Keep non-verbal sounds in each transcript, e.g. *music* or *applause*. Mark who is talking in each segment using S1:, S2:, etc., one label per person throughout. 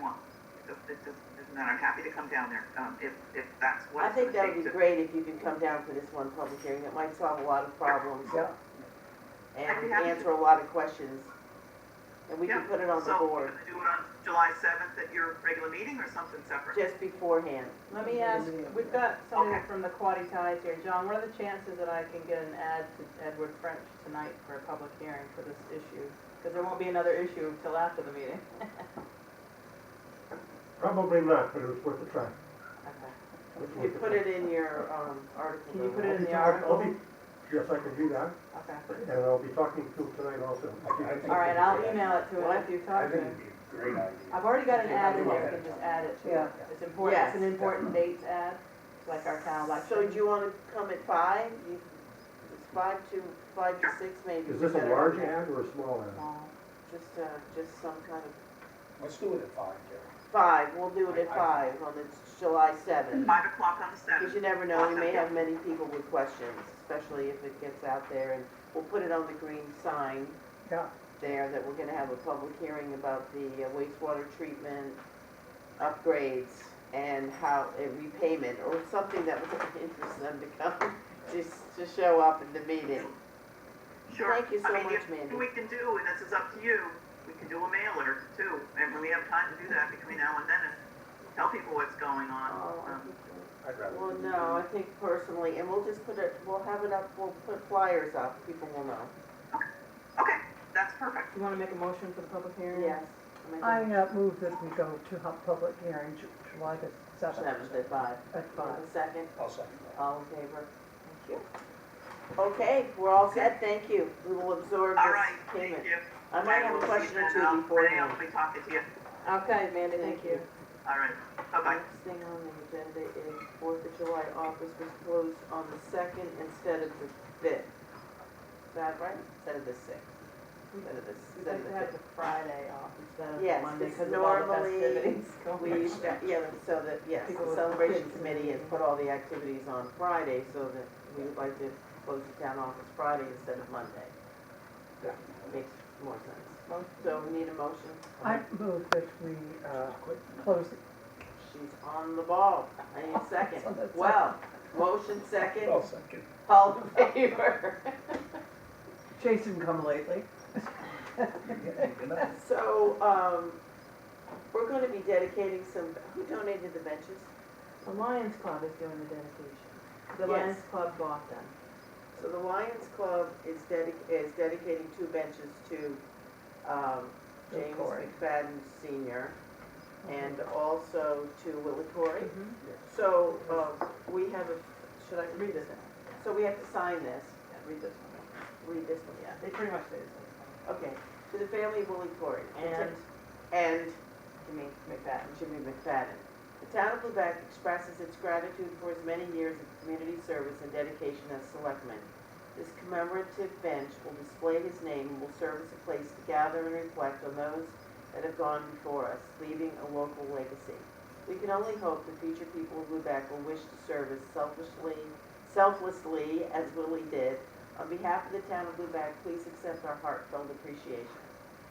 S1: want. So this is, this is not, I'm happy to come down there, um, if, if that's what
S2: I
S1: it's
S2: think
S1: gonna
S2: that
S1: take
S2: would be
S1: to-
S2: great if you could come down for this one public hearing, it might solve a lot of problems.
S3: Yeah.
S1: I'd be
S2: And
S1: happy to.
S2: answer a lot of questions. And we can
S1: Yeah,
S2: put it on the
S1: So, we're
S2: board
S1: gonna do it on July seventh at your regular meeting or something separate?
S2: just beforehand.
S4: Let me ask, we've got
S1: Okay.
S4: somebody from the Quaddy Ties here. John, what are the chances that I can get an ad to Edward French tonight for a public hearing for this issue? Because there won't be another issue until after the meeting.
S3: Probably not, but it was worth a try.
S4: Okay.
S3: It was
S2: You
S3: worth a
S2: put
S3: try.
S2: it in your, um, article.
S4: Can you put
S3: I'll
S4: it in
S3: be
S4: the
S3: talk- I'll
S4: article?
S3: be- Yes, I can do that,
S4: Okay.
S3: and I'll be talking to him tonight also.
S4: All right, I'll email it to him if you
S5: I
S4: talk to
S5: think
S4: him.
S5: it'd be a great idea.
S4: I've already got an ad in there, we can just add it to
S3: Yeah.
S4: it. It's important, it's an
S2: Yes.
S4: important dates ad, like our town
S2: So
S4: election.
S2: do you wanna come at five? You- It's five to, five to six maybe.
S3: Is this a
S2: better.
S3: large ad or a small ad?
S4: Small.
S2: Just, uh, just some kind of,
S5: Let's do it at five, Jerry.
S2: five, we'll do it at
S5: I- I-
S2: five on the July seventh.
S1: Five o'clock on the
S2: Because
S1: seventh,
S2: you never know, you may have many people with questions, especially if it gets out there, and we'll put it on the green sign
S3: Yeah.
S2: there that we're gonna have a public hearing about the uh, wastewater treatment upgrades and how, and repayment, or something that would *laughs* interest them to come, *laughs* just to show up at the meeting.
S1: sure.
S2: Thank you
S1: I
S2: so
S1: mean,
S2: much,
S1: if-
S2: Mandy.
S1: We can do, and this is up to you, we can do a mailer too, and when we have time to do that between now and then, and tell people what's going on.
S2: Oh, I
S1: Um,
S2: think-
S5: I'd rather.
S2: Well,
S5: do
S2: no, I think personally, and we'll just put it, we'll have it up, we'll put flyers up, people will know.
S1: Okay, that's perfect.
S4: You wanna make a motion for the public hearing?
S2: Yes.
S6: I uh, move that we go to hu- public hearing Ju- July the
S2: Seventh
S6: 7th
S2: at five.
S6: at 5.
S2: Second.
S5: I'll second that.
S2: All in favor? Thank you. Okay, we're all set, thank you. We will absorb
S1: All right,
S2: this
S1: thank
S2: payment.
S1: you.
S2: I might have a question or two
S1: Renee, I'll
S2: beforehand.
S1: be talking to you.
S4: Okay, Amanda,
S2: Thank
S4: thank
S2: you.
S4: you.
S1: All right, bye-bye.
S2: Next thing on the agenda is Fourth of July office was closed on the second instead of the fifth. Is that right? Instead of the sixth. Instead of the,
S4: We'd
S2: instead
S4: like
S2: of
S4: to
S2: the
S4: have the
S2: fifth.
S4: Friday off instead of
S2: Yes,
S4: the Monday
S2: it's
S4: because of all the
S2: normally
S4: festivities
S2: We,
S4: *laughs* going on.
S2: yeah, so that, yes,
S4: People
S2: the
S4: with
S2: celebration
S4: kids and
S2: committee has
S4: everything.
S2: put all the activities on Friday so that we would like to close the town office Friday instead of Monday. Makes more sense. So we need a motion.
S6: I move that we uh, close,
S2: She's on the ball. I need a *laughs* second.
S6: On the second.
S2: Well, motion second,
S5: I'll second.
S2: all in favor. *laughs*
S6: Jason come lately.
S2: So, um, we're gonna be dedicating some, who donated the benches?
S4: The Lions Club is doing the dedication. The
S2: Yes.
S4: Lions Club bought them.
S2: So the Lions Club is dedic- is dedicating two benches to, um,
S6: Will
S2: James
S6: Corey.
S2: McFadden Senior
S4: Mm-hmm.
S2: and also to Willie Corey.
S4: Mhm.
S2: So, um, we have a, should I read this? So we have to sign this,
S4: Yeah, read this one.
S2: read this one, yeah.
S4: They pretty much say the same
S2: Okay, to the family of Willie Corey
S4: thing.
S2: and,
S4: And
S2: and
S4: Jimmy McFadden.
S2: Jimmy McFadden. The town of Lubec expresses its gratitude for his many years of community service and dedication as selectman. This commemorative bench will display his name and will serve as a place to gather and reflect on those that have gone before us, leaving a local legacy. We can only hope the future people of Lubec will wish to serve as selfishly, selflessly as Willie did. On behalf of the town of Lubec, please accept our heartfelt appreciation.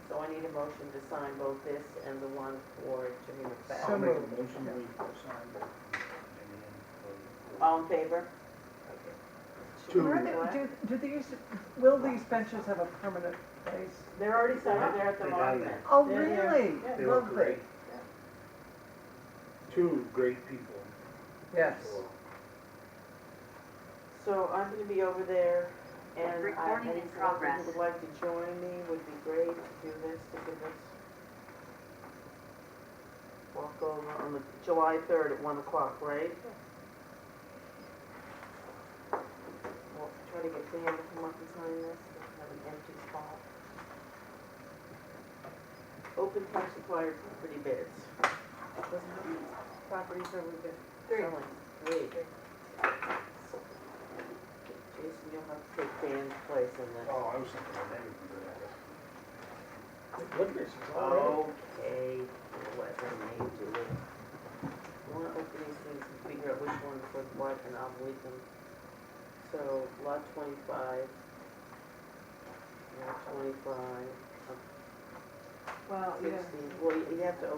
S2: So I need a motion to sign both this and the one for Jimmy
S5: *laughs* I'll
S2: McFadden.
S5: make a
S6: moved.
S5: motion we sign the and
S2: All in favor?
S3: Two.
S6: Are they- Do do these, will these benches have a permanent place?
S4: They're already set
S2: Right
S4: up.
S2: there at the
S5: They got it.
S2: monument.
S6: Oh,
S4: Yeah, yeah.
S6: really?
S4: Yeah.
S5: They were
S6: Lovely.
S5: great. Two great people.
S6: Yes.
S5: for-
S2: So I'm gonna be over there and I,
S7: Recording in
S2: any selectmen
S7: progress.
S2: who would like to join me would be great to do this, to give us. Walk over on the July third at one o'clock, right? Well, try to get Dan to come up and sign this, we have an empty spot. Open time supplier property bids. Wasn't it properties that we've been
S4: Three.
S2: selling? Three. Jason, you'll have to take Dan's place in this.
S5: Oh, I was thinking of everything. Look at this, it's all
S4: Oh.
S5: ready.
S2: Okay, let her name do it. I wanna open these things and figure out which ones look what and I'll leave them. So lot twenty-five. Lot twenty-five,
S4: Well, yeah.
S2: sixteen, well, you you have to